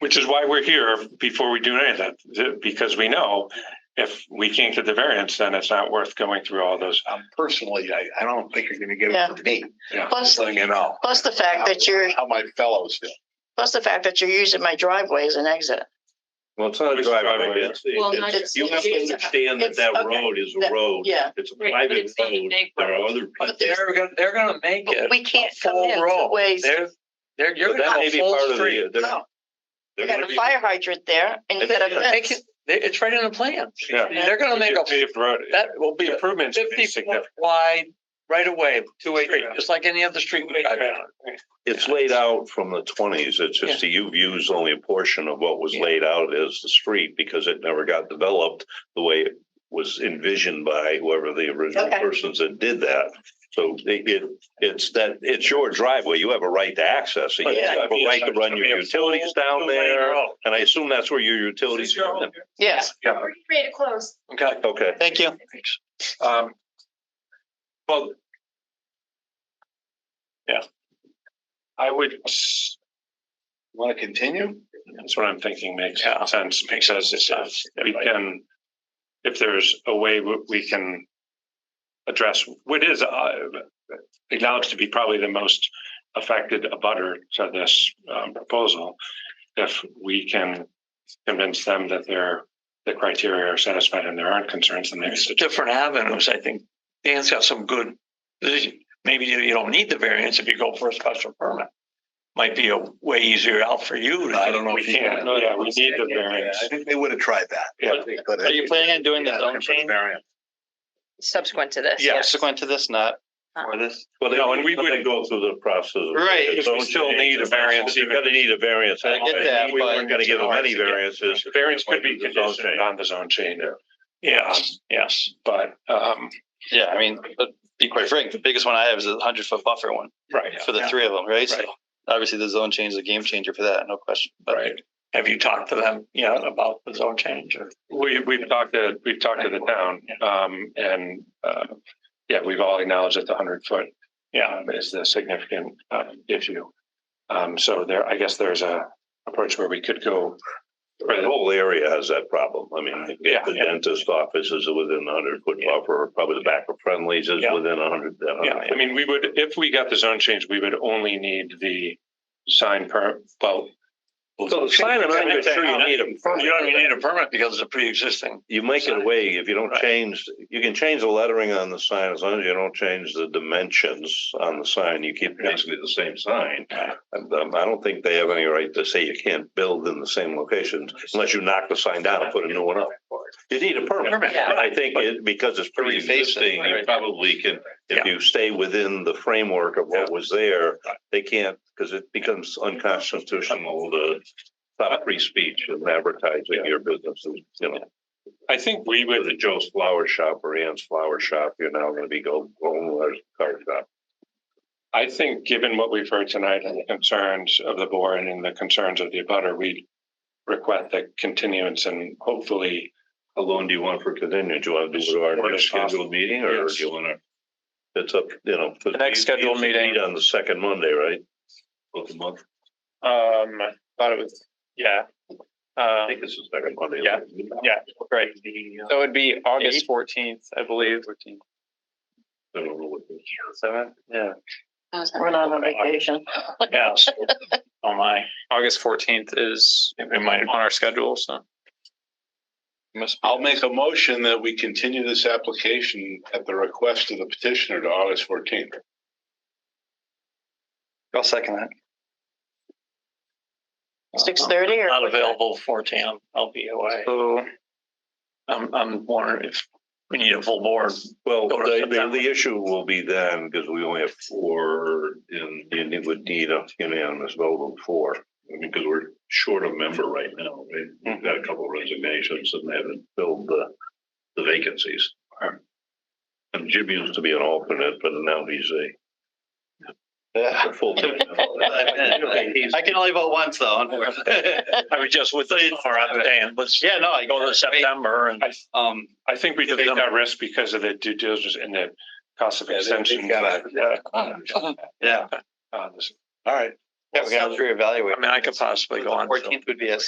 Which is why we're here before we do anything, th- because we know if we can't get the variance, then it's not worth going through all those. Um, personally, I, I don't think you're gonna get Yeah. it from me, Plus, just letting you know. plus the fact that you're, How my fellows feel. plus the fact that you're using my driveway as an exit. Well, it's not a It's driveway. driveway. it's- Well, it's- not just- You have to it's- understand that it's- that okay. road is a That- road. yeah. It's a Right, but private it's a road. big There are road. other But people. they're gonna, they're gonna make But it. we can't a come full in two road. ways. They're, they're, you're But that gonna may have be a part full of street. the- uh, they're- No, They're You got gonna a be- fire hydrant there and you got a Yeah, Make fence. it, they- it's right in the plan. Yeah. They're gonna make a, Paved road, that will be a improvements would be fifty foot significant. wide right away, Two way street, just like any other street. we drive down. It's laid out from the twenties. It's just that you've used only a portion of what was Yeah. laid out as the street because it never got developed the way it was envisioned by whoever the original Okay. persons that did that. So it, it, it's that, it's your driveway. You have a right to access it. You Yeah. have a right to run your utilities down there. And I assume that's where your utilities. Yes. Yeah. We're ready to close. Okay, Okay. Thank you. um. Well. Yeah. I would. Want to continue? That's what I'm thinking makes Yeah. sense because if uh, we can, if there's a way w- we can address what is uh, acknowledged to be probably the most affected abutter to this um, proposal, if we can convince them that their, the criteria are satisfied and there aren't concerns, then maybe. There's different avenues, I think. Dan's got some good, maybe you don't need the variance if you go for a special permit. Might be a way easier out for you. to- I don't know We if you. can't, no, yeah, we need the variance. I think they would have tried that. Yeah. They could have. Are you planning on doing the Yeah, zone looking for the change variance. Subsequent to this. subsequent to this, not for this? Well, No, and we they- wouldn't- Go through the process. of- Right, if It's we own still change. need a variance, You're gonna need a variance. I get that, We weren't but- gonna give them any variances. The variance could be It's all conditioned changed. on the zone change. Yeah, yes, but, um, Yeah, I mean, but be quite frank, the biggest one I have is a hundred foot buffer one right, for the Yeah. three of them, right? So Right. obviously the zone change is a game changer for that, no question. But right. Have you talked to them yet about the zone change or? We, we've talked to, we've talked to the town, um, and, uh, yeah, we've all acknowledged that the hundred foot. Yeah. Is the significant, um, issue. Um, so there, I guess there's a approach where we could go. The whole area has that problem. I mean, Yeah, the yeah. dentist offices are within a hundred foot Yeah. buffer, probably the back of Friendly's is Yeah. within a hundred. Yeah, I mean, we would, if we got the zone change, we would only need the sign per, well. So the sign, I'm not even sure you need a You permit. don't even need a permit because it's a pre-existing. You make it away, if you don't Right. change, you can change the lettering on the sign, as long as you don't change the dimensions on the sign, you keep basically the same sign. And, um, I don't think they have any right to say you can't build in the same locations unless you knock the sign down and put a new one up. You need a permit, Permit. and I think it, because it's pre-existing, you right. probably can, if Yeah. you stay within the framework of what was there, Right. they can't, because it becomes unconstitutional to stop free speech and advertising your business, you know. I think we With would, the Joe's Flower Shop or Ann's Flower Shop, you're now gonna be go, going with car shop. I think, given what we've heard tonight and the concerns of the board and the concerns of the abutter, we request the continuance and hopefully How long do you want for continuing? Do you want to do it at our Or next it's possible. scheduled meeting or do Yes. you wanna? It's up, you know. The next scheduled meeting. On the second Monday, right? Of the month. Um, I thought it was, yeah. I Um think it's the second Monday. Yeah. yeah, right. So it'd be August fourteenth, I believe. I don't know what it is. Seventh? Yeah. We're not on vacation. Yes. Oh, my. August fourteenth is It might on our schedule, so. I'll make a motion that we continue this application at the request of the petitioner to August fourteenth. I'll second that. Six thirty or? Not available fourteen, I'll- I'll be away. So, I'm, I'm wondering if we need a full board. Well, Go to the, the, September. the issue will be then, because we only have four, and you need- would need a unanimous vote of four. I mean, because we're short a member right now, right? We've got a couple resignations and they haven't filled the, the vacancies. And Jim used to be an alternate, but now he's a- a. full member. I can only vote once though, unfortunately. I was just with the, or I'm saying, let's Yeah, no, I go to September and. Um, I think we Give take them- that risk because of the due diligence and the cost of Yeah, they- they've extension. gotta- Yeah. yeah, Uh, this- All right. Yeah, we can always reevaluate. I mean, I could possibly go on. till- Fourteenth would be a